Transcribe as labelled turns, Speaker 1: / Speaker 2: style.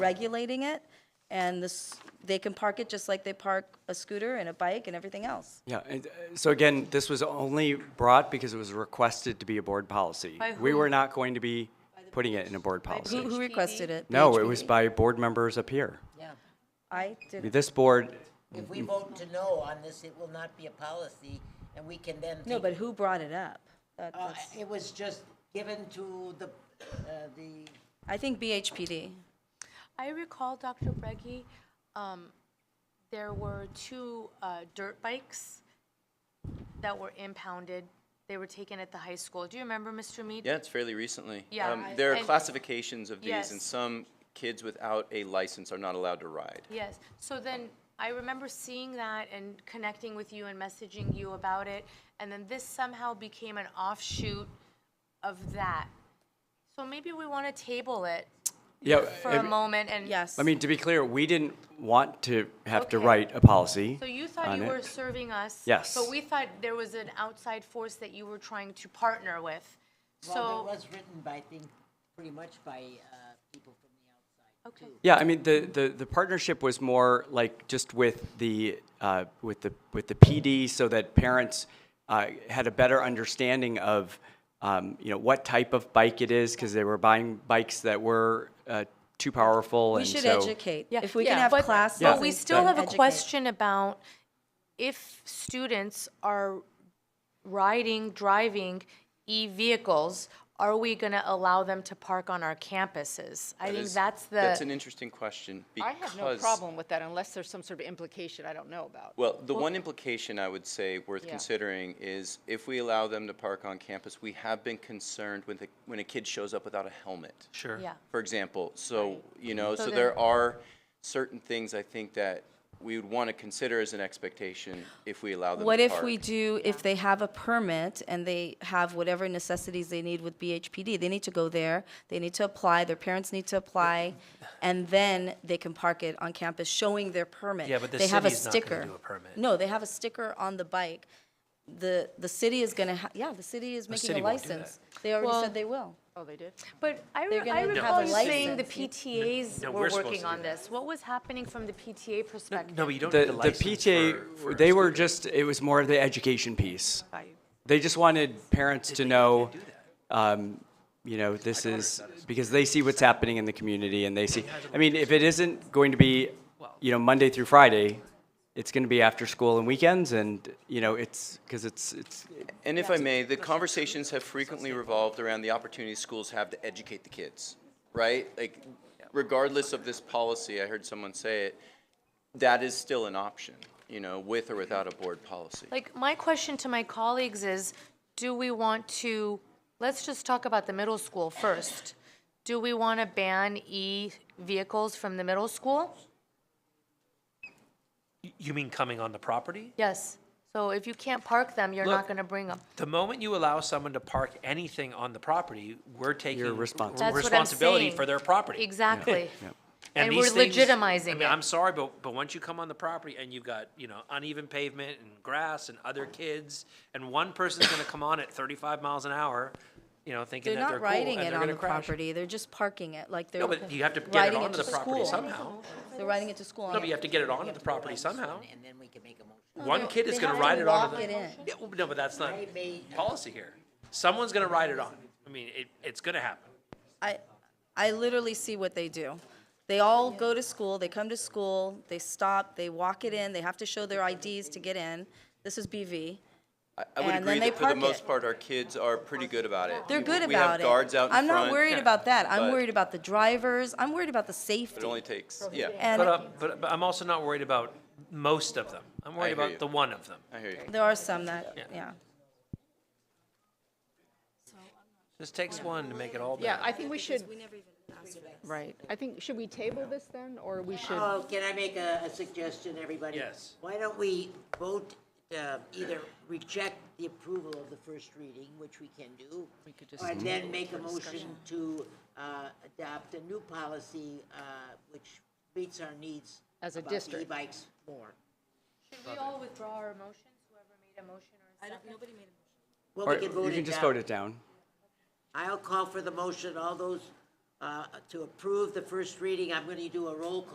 Speaker 1: regulating it, and this, they can park it just like they park a scooter and a bike and everything else.
Speaker 2: Yeah, and uh, so again, this was only brought because it was requested to be a board policy.
Speaker 3: By
Speaker 2: We
Speaker 3: who?
Speaker 2: were not going to be putting it in a board
Speaker 1: Who,
Speaker 2: policy.
Speaker 1: who requested it?
Speaker 2: No, it was
Speaker 1: BHP?
Speaker 2: by board members up here.
Speaker 4: Yeah,
Speaker 1: I
Speaker 2: I mean,
Speaker 1: did,
Speaker 2: This board,
Speaker 4: if we vote to no on this, it will not be a policy, and we can then.
Speaker 1: no, but
Speaker 4: take-
Speaker 1: who brought it up? That-
Speaker 4: Uh,
Speaker 1: that's-
Speaker 4: It was just given to the, uh, the,
Speaker 1: I think BHPD.
Speaker 3: I recall, Dr. Breggy, um, there were two uh, dirt bikes that were impounded. They were taken at the high school. Do you remember, Mr. Mead?
Speaker 5: Yeah, it's fairly recently.
Speaker 3: Yeah,
Speaker 5: Um,
Speaker 3: I-
Speaker 5: There are
Speaker 3: and-
Speaker 5: classifications of these, and
Speaker 3: Yes.
Speaker 5: some kids without a license are not allowed to ride.
Speaker 3: Yes. So then I remember seeing that and connecting with you and messaging you about it. And then this somehow became an offshoot of that. So maybe we want to table it
Speaker 2: yeah,
Speaker 3: for a
Speaker 2: I
Speaker 3: moment and.
Speaker 1: Yes.
Speaker 2: I mean, to be clear, we didn't want to have to
Speaker 3: Okay.
Speaker 2: write a policy.
Speaker 3: So you thought
Speaker 2: on
Speaker 3: you
Speaker 2: it.
Speaker 3: were serving us?
Speaker 2: Yes.
Speaker 3: But we thought there was an outside force that you were trying to partner with.
Speaker 4: well, it
Speaker 3: So,
Speaker 4: was written by, I think, pretty much by uh, people from the outside.
Speaker 3: okay,
Speaker 2: Yeah, I mean, the, the, the partnership was more like just with the, uh, with the, with the PD so that parents, uh, had a better understanding of, um, you know, what type of bike it is, because they were buying bikes that were, uh, too powerful
Speaker 1: We
Speaker 2: and so.
Speaker 1: should educate.
Speaker 3: Yeah,
Speaker 1: If we can
Speaker 3: yeah,
Speaker 1: have
Speaker 3: but-
Speaker 1: classes.
Speaker 3: But we
Speaker 1: and
Speaker 3: still have a
Speaker 1: educate.
Speaker 3: question about if students are riding, driving e-vehicles, are we going to allow them to park on our campuses? I
Speaker 5: That
Speaker 3: think
Speaker 5: is-
Speaker 3: that's the.
Speaker 5: That's an interesting question
Speaker 6: I have no
Speaker 5: because-
Speaker 6: problem with that unless there's some sort of implication I don't know about.
Speaker 5: Well, the one implication I would say worth
Speaker 6: Yeah.
Speaker 5: considering is if we allow them to park on campus, we have been concerned with, a- when a kid shows up without a helmet. Sure.
Speaker 3: Yeah.
Speaker 5: For example, so, you know,
Speaker 3: So
Speaker 5: so
Speaker 3: there-
Speaker 5: there are certain things I think that we would want to consider as an expectation if we allow them to park.
Speaker 1: What if we do, if they have a permit and they have whatever necessities they need with BHPD, they need to go there, they need to apply, their parents need to apply, and then they can park it on campus, showing their permit.
Speaker 7: Yeah, but the
Speaker 1: They have a
Speaker 7: city's not gonna
Speaker 1: sticker.
Speaker 7: do a permit.
Speaker 1: No, they have a sticker on the bike. The, the city is gonna, ha- yeah, the city is making a
Speaker 7: city won't do that.
Speaker 1: license. They already
Speaker 3: Well-
Speaker 1: said they will.
Speaker 6: Oh, they did?
Speaker 3: But I,
Speaker 1: They're
Speaker 3: re-
Speaker 1: gonna
Speaker 3: I
Speaker 1: have
Speaker 3: recall
Speaker 1: a
Speaker 3: you saying the
Speaker 1: license. You-
Speaker 3: PTAs
Speaker 7: No,
Speaker 3: were
Speaker 7: we're supposed
Speaker 3: working
Speaker 7: to
Speaker 3: on
Speaker 7: do that.
Speaker 3: this. What was happening from the PTA perspective?
Speaker 7: No, but you don't
Speaker 2: The,
Speaker 7: need
Speaker 2: the
Speaker 7: the license
Speaker 2: PTA,
Speaker 7: for- for a
Speaker 2: they were
Speaker 7: scooter.
Speaker 2: just, it was more of the education piece. They just wanted parents to know, um, you know, this is, because they see what's happening in the community and they see, I mean, if it isn't going to be, you know, Monday through Friday, it's going to be after school and weekends and, you know, it's, because it's, it's,
Speaker 5: And if I may, the conversations have frequently revolved around the opportunities schools have to educate the kids, right? Like, regardless of this policy, I heard someone say it, that is still an option, you know, with or without a board policy.
Speaker 3: Like, my question to my colleagues is, do we want to, let's just talk about the middle school first. Do we want to ban e-vehicles from the middle school?
Speaker 7: You mean coming on the property?
Speaker 3: Yes. So if you can't park them, you're not
Speaker 7: Look,
Speaker 3: going to bring them.
Speaker 7: The moment you allow someone to park anything on the property, we're taking
Speaker 2: You're
Speaker 7: we're
Speaker 2: responsible.
Speaker 3: That's what I'm
Speaker 7: responsibility
Speaker 3: saying.
Speaker 7: for their property.
Speaker 3: Exactly.
Speaker 7: And,
Speaker 3: And we're
Speaker 7: these things-
Speaker 3: legitimizing
Speaker 7: I mean,
Speaker 3: it.
Speaker 7: I'm sorry, but but once you come on the property and you've got you know uneven pavement and grass and other kids, and one person's going to come on at 35 miles an hour, you know, thinking
Speaker 1: They're
Speaker 7: that
Speaker 1: not
Speaker 7: they're cool
Speaker 1: riding
Speaker 7: and
Speaker 1: it
Speaker 7: they're
Speaker 1: on
Speaker 7: gonna
Speaker 1: the
Speaker 7: crash.
Speaker 1: property, they're just parking it, like they're
Speaker 7: No, but you have to get it
Speaker 1: riding it
Speaker 7: onto
Speaker 1: to
Speaker 7: the property
Speaker 1: school.
Speaker 7: somehow.
Speaker 1: They're riding it to school. on
Speaker 7: No,
Speaker 1: it.
Speaker 7: but you have to get it onto the property
Speaker 4: This one,
Speaker 7: somehow.
Speaker 4: And then we can make a motion.
Speaker 7: One kid is
Speaker 1: they
Speaker 7: going
Speaker 1: have
Speaker 7: to
Speaker 1: to
Speaker 7: ride it
Speaker 1: walk
Speaker 7: onto the.
Speaker 1: it in.
Speaker 7: Yeah, well, no, but that's not
Speaker 4: I may-
Speaker 7: policy here. Someone's going to ride it on. I mean, it, it's going to happen.
Speaker 1: I, I literally see what they do. They all go to school, they come to school, they stop, they walk it in, they have to show their IDs to get in. This is BV.
Speaker 5: I- I would
Speaker 1: And then
Speaker 5: agree
Speaker 1: they
Speaker 5: that for the
Speaker 1: park
Speaker 5: most
Speaker 1: it.
Speaker 5: part, our kids are pretty good about it.
Speaker 1: They're
Speaker 5: We-
Speaker 1: good
Speaker 5: We have
Speaker 1: about it.
Speaker 5: guards out in front.
Speaker 1: I'm not worried about that. I'm
Speaker 5: but-
Speaker 1: worried about the drivers. I'm worried about the
Speaker 5: It
Speaker 1: safety.
Speaker 5: only takes, yeah,
Speaker 7: But,
Speaker 1: And
Speaker 7: uh, but, but I'm also not worried about most of them. I'm
Speaker 5: I
Speaker 7: worried
Speaker 5: hear
Speaker 7: about
Speaker 5: you.
Speaker 7: the one of them.
Speaker 5: I hear you.
Speaker 1: there are some that, yeah.
Speaker 7: This takes one to make it all
Speaker 6: Yeah,
Speaker 7: better.
Speaker 6: I think we should. Right. I think, should we table this then, or we should?
Speaker 4: Oh, can I make a, a suggestion, everybody?
Speaker 7: Yes.
Speaker 4: Why don't we vote, uh, either reject the approval of the first reading, which we can do, or then make a motion to, uh, adopt a new policy, uh, which meets our needs
Speaker 6: As a
Speaker 4: about the
Speaker 6: district.
Speaker 4: e-bikes more.
Speaker 3: Should we all withdraw our motions, whoever made a motion or a second?
Speaker 4: Well,
Speaker 2: or
Speaker 4: we can vote
Speaker 2: you can
Speaker 4: it
Speaker 2: just
Speaker 4: down.
Speaker 2: vote it down.
Speaker 4: I'll call for the motion. All those uh, to approve the first reading. I'm going to do a roll call